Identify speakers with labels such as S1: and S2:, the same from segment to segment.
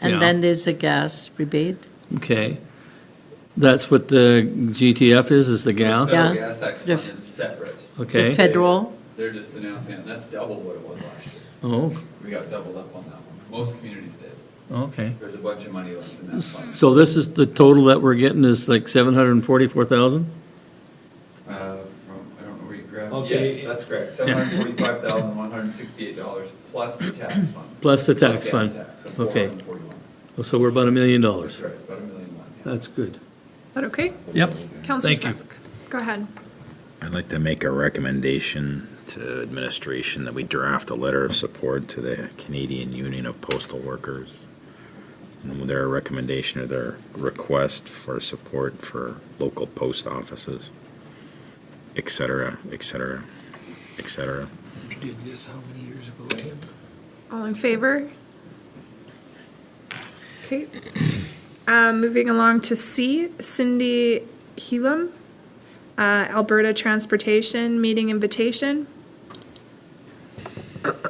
S1: And
S2: Yeah.
S1: then there's a gas rebate.
S2: Okay. That's what the GTF is, is the gas?
S1: Yeah.
S3: Federal gas tax
S1: The
S3: fund
S1: f-
S3: is separate.
S1: The
S2: Okay.
S3: Fed-
S1: federal,
S3: They're just announcing it, that's double what it was last year.
S2: Oh,
S3: We got doubled up on that one. Most communities did.
S2: okay.
S3: There's a bunch of money left in that fund.
S2: So this is, the total that we're getting is like 744,000?
S3: Uh, from, I don't know where you grabbed,
S4: Okay.
S3: yes, that's correct, seven hundred forty-five thousand, one hundred sixty-eight dollars plus the tax fund.
S2: Plus the
S3: Plus
S2: tax
S3: gas
S2: fund?
S3: tax of
S2: Okay. Oh,
S3: 441.
S2: So we're about a million
S3: That's
S2: dollars.
S3: right, about a million one. yeah.
S2: That's good.
S4: Is that okay?
S2: Yep.
S4: Counselor
S2: Thank you.
S4: Sack, go ahead.
S5: I'd like to make a recommendation to administration that we draft a letter of support to the Canadian Union of Postal Workers. And their recommendation or their request for support for local post offices, et cetera, et cetera, et cetera.
S4: All in favor? Okay. Um, moving along to C, Cindy Helam, uh, Alberta Transportation Meeting Invitation.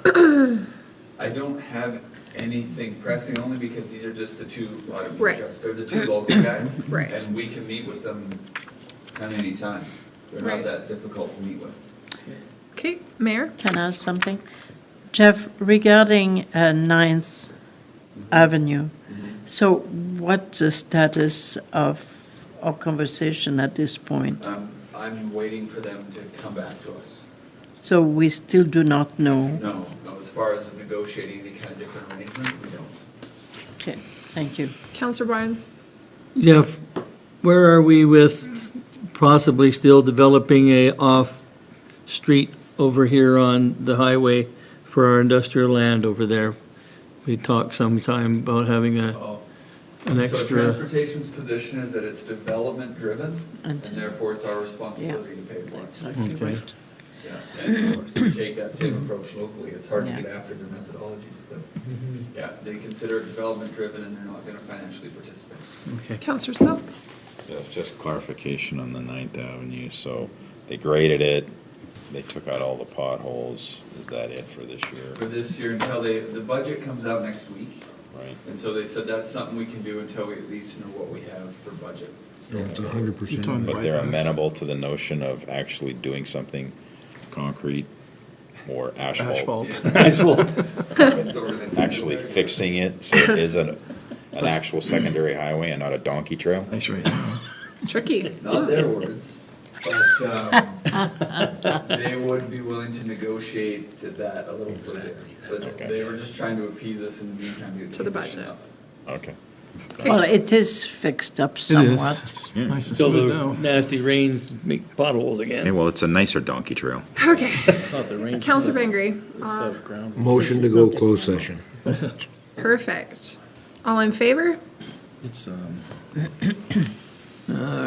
S3: I don't have anything pressing, only because these are just the two
S4: Right.
S3: automated trucks. They're the two local guys.
S4: Right.
S3: And we can meet with them at any time. They're
S4: Right.
S3: not that difficult to meet with.
S4: Okay, Mayor?
S1: can I ask something? Jeff, regarding uh, Ninth Avenue, so what's the status of our conversation at this point?
S3: Um, I'm waiting for them to come back to us.
S1: So we still do not know.
S3: No, no, as far as negotiating any kind of different arrangement, we don't.
S1: Okay, thank you.
S4: Counselor Barnes?
S2: Jeff, where are we with possibly still developing a off-street over here on the highway for our industrial land over there? We talked sometime about having a,
S3: Oh.
S2: an
S3: So
S2: extra,
S3: transportation's position is that it's development driven and
S1: And-
S3: therefore it's our responsibility to pay for it.
S1: Exactly
S2: Okay.
S1: right.
S3: Yeah, and of course, we take that same approach locally, it's hard to get after their methodologies, but,
S2: Mm-hmm.
S3: yeah, they consider it development-driven and they're not gonna financially participate.
S2: okay.
S4: Counselor Selk?
S5: Jeff, Just clarification on the Ninth Avenue, so they graded it, they took out all the potholes, is that it for this year,
S3: For this year, until they, the budget comes out next week,
S5: right?
S3: and so they said that's something we can do until we at least know what we have for budget.
S6: It's a hundred percent.
S5: But they're amenable to the notion of actually doing something concrete or asphalt.
S3: It's over the-
S5: Actually fixing it so it is an, an actual secondary highway and not a donkey trail.
S4: Tricky.
S3: Not their words, but, um, they would be willing to negotiate to that a little further. But
S5: Okay.
S3: they were just trying to appease us in the meantime. get
S4: To the
S3: condition
S4: budget.
S3: up.
S5: Okay.
S1: Well, it is fixed up somewhat.
S6: Nice and
S2: Till
S6: smooth
S2: the
S6: now.
S2: nasty rains make potholes
S5: Hey,
S2: again.
S5: well, it's a nicer donkey trail.
S4: Okay,
S2: Thought the rains-
S4: Counselor Bengry? Uh,
S6: Motion to go closed session.
S4: Perfect. All in favor?